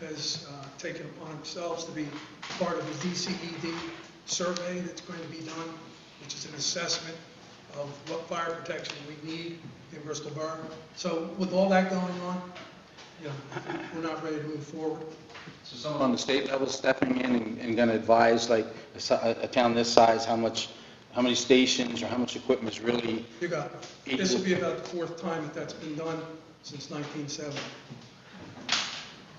has uh, taken upon themselves to be part of the DCED survey that's going to be done, which is an assessment of what fire protection we need in Bristol Borough. So with all that going on, you know, we're not ready to move forward. So someone on the state level stepping in and- and going to advise, like, a si- a a town this size, how much, how many stations or how much equipment is really, You got, it. this will be about the fourth time that that's been done since 1970.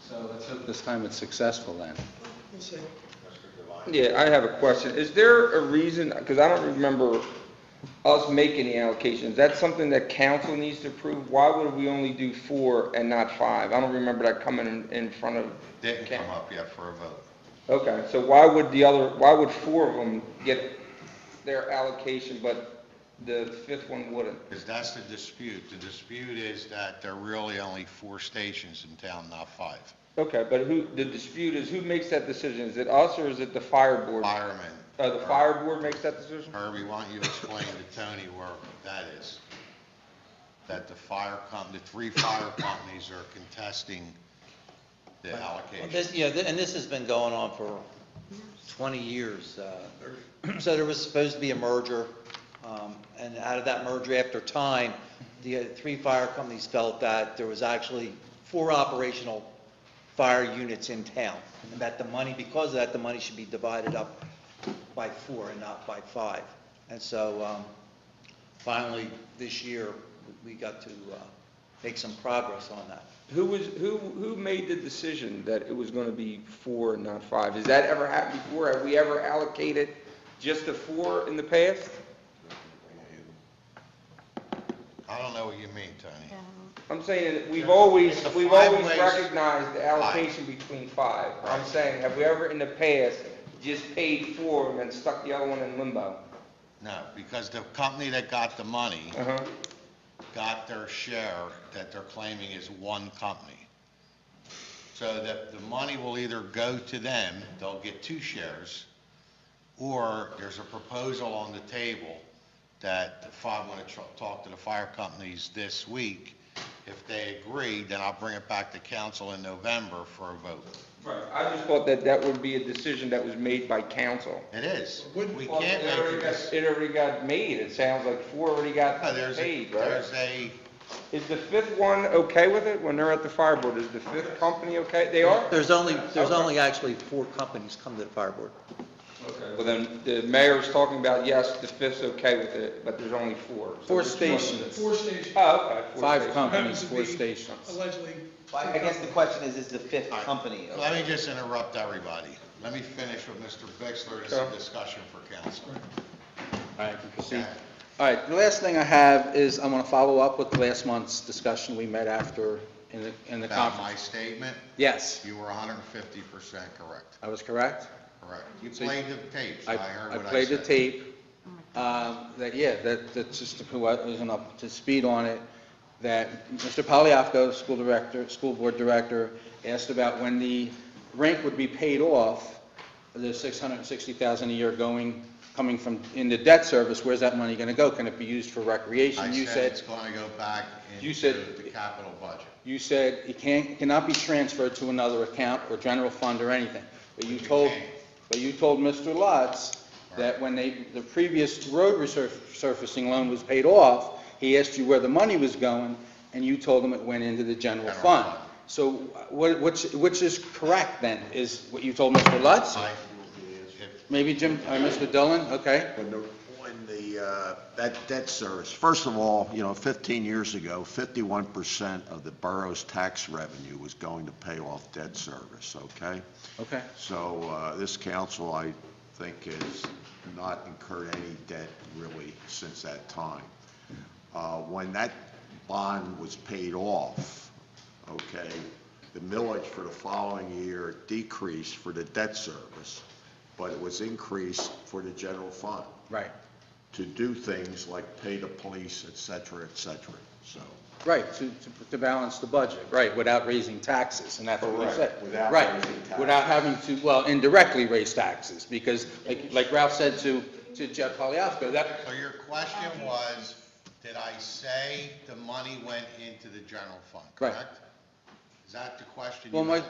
so let's hope this time it's successful then. We'll see. Yeah, I have a question. Is there a reason, because I don't remember us making the allocations. Is that something that council needs to approve? Why would we only do four and not five? I don't remember that coming in, in front of. Didn't come up yet for a vote. Okay, so why would the other, why would four of them get their allocation, but the fifth one wouldn't? Because that's the dispute. The dispute is that there are really only four stations in town, not five. Okay, but who, the dispute is who makes that decision? Is it us or is it the fire board? Uh, Firemen. the fire board makes that decision? Herbie, why don't you explain to Tony where that is? That the fire com, the three fire companies are contesting the Well, allocation. This, yeah, th- and this has been going on for 20 years. uh, So there was supposed to be a merger, um, and out of that merger, after time, the uh, three fire companies felt that there was actually four operational fire units in town, and that the money, because of that, the money should be divided up by four and not by five. And so um, finally, this year, we we got to uh, make some progress on that. Who was, who, who made the decision that it was gonna be four and not five? Has that ever happened before? Have we ever allocated just the four in the past? I don't know what you mean, Tony. I'm saying, that we've always, It's a we've always five-ways- recognized the allocation between five. I'm Right. saying, have we ever in the past just paid four and then stuck the other one in limbo? No, because the company that got the money Uh-huh. got their share that they're claiming is one company. So that the money will either go to them, they'll get two shares, or there's a proposal on the table that if I want to talk to the fire companies this week, if they agree, then I'll bring it back to council in November for a vote. Right. I just thought that that would be a decision that was made by council. It is. We Wouldn't- can't Well, make it already it. got- this- It already got made, it sounds like four already got No, There's a, paid, right? there's a, Is the fifth one okay with it when they're at the fire board? Is the fifth company okay? They are? There's only, there's Okay. only actually four companies come to the fire board. Well, then, the mayor's talking about, yes, the fifth's okay with it, but there's only four. So Four which one is it? stations. Four stations. Oh, okay. four Five stations. companies, Happens to four be stations. Allegedly. Well, I guess the question is, is the fifth company? okay? let me just interrupt everybody. Let me finish with Mr. Bixler, this is a Sure. discussion for council. All right, you can proceed. Okay. All right, the last thing I have is I'm going to follow up with last month's discussion we met after in the, in the About my conference. statement, Yes, you were 150 percent correct, I was correct. correct. You So played the tapes, I I, heard I what I said. Oh played the tape, um, that, yeah, that, that's just who I was up to speed on it, that Mr. Polyafco, school director, school board director, asked about when the rink would be paid off, the six hundred and sixty thousand a year going, coming from, in the debt service, where's that money gonna go? Can it be used for recreation? I You said it's going to go back You into said- the capital budget. You said it can't, it cannot be transferred to another account or general fund or anything. But you But it told, can. but you told Mr. Lutz that when they, the previous road resurfacing loan was paid off, he asked you where the money was going, and you told him it went into the general General fund. fund. So what, which, which is correct then, is what you told Mr. Lutz? I- if- Maybe Jim, or Mr. Dillon, okay? When the, when the, uh, that debt service, first of all, you know, 15 years ago, 51% of the borough's tax revenue was going to pay off debt service, okay? Okay. So uh, this council, I think, has not incurred any debt really since that time. Uh, When that bond was paid off, okay, the millage for the following year decreased for the debt service, but it was increased for the general fund Right. to do things like pay the police, et cetera, et cetera, so. Right, to, to- to balance the budget, right, without raising taxes, and that's what we Correct, said. without Right, raising taxes. Without having to, well, indirectly raise taxes, because like, like Ralph said to, to Jeff Polyafco, that, So your question was, did I say the money went into the general fund, Right. correct? Is that the question? you well, my, asked?